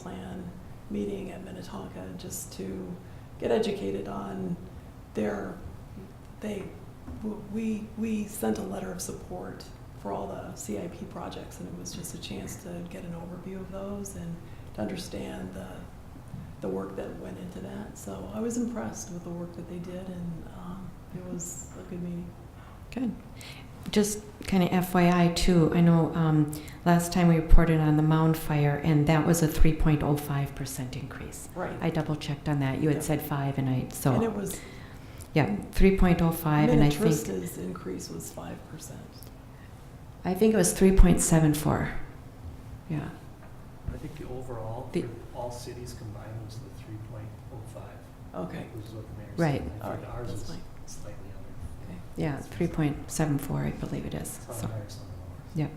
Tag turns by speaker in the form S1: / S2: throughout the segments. S1: plan meeting at Minnetonka just to get educated on their, they, we, we sent a letter of support for all the CIP projects, and it was just a chance to get an overview of those and to understand the, the work that went into that. So I was impressed with the work that they did, and um, it was a good meeting.
S2: Good. Just kind of FYI too, I know um, last time we reported on the mound fire, and that was a 3.05% increase.
S1: Right.
S2: I double checked on that. You
S1: Yeah.
S2: had said five, and I
S1: And it
S2: so
S1: was,
S2: yeah, 3.05, and I think
S1: Minnetrista's increase was five percent.
S2: I think it was 3.74. Yeah.
S3: I think the overall,
S2: The-
S3: for all cities combined was the three point oh five,
S1: Okay,
S3: which is what the mayor said.
S2: Right.
S3: And I
S1: Alright,
S3: think ours
S1: that's
S3: is
S1: fine.
S3: slightly
S1: okay.
S3: under,
S2: Yeah, 3.74, I believe it is. So
S3: some higher, some lower.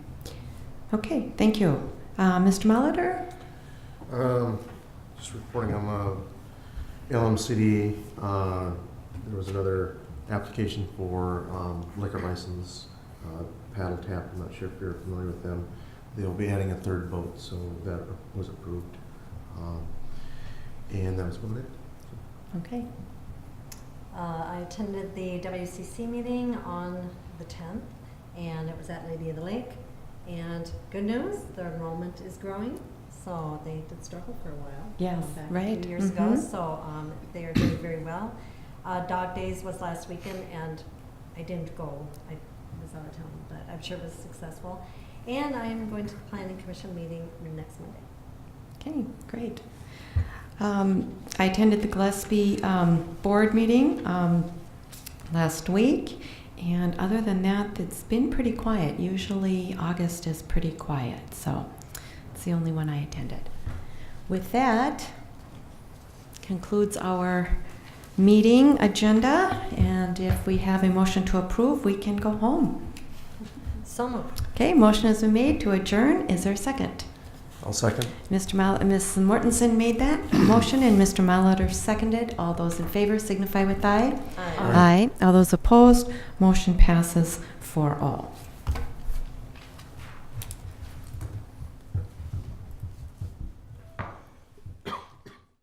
S2: okay, thank you, uh, Mr. Molitor.
S4: Um, Just reporting on uh, LMCD, uh, there was another application for um, liquor license, uh, paddle tap, I'm not sure if you're familiar with them. They'll be adding a third boat, so that was approved. Um, And that was about it.
S2: Okay.
S5: Uh, I attended the WCC meeting on the 10th, and it was at Lady of the Lake. And good news, their enrollment is growing, so they did struggle for a while.
S2: Yes,
S5: back A
S2: right,
S5: few years ago,
S2: mhm.
S5: so um, they are doing very well. Uh, Dog Days was last weekend, and I didn't go. I was out of town, but I'm sure it was successful. And I am going to the Planning Commission meeting next Monday.
S2: Okay, great. Um, I attended the Gillespie um, Board meeting um, last week, and other than that, it's been pretty quiet. Usually, August is pretty quiet, so it's the only one I attended. With that, concludes our meeting agenda, and if we have a motion to approve, we can go home.
S5: So moved.
S2: Okay, motion has been made to adjourn. Is there a second?
S4: I'll second.
S2: Mr. Mal, Ms. Mortensen made that motion, and Mr. Malater seconded. All those in favor signify with aye.
S5: Aye.
S4: Aye.
S2: All those opposed, motion passes for all.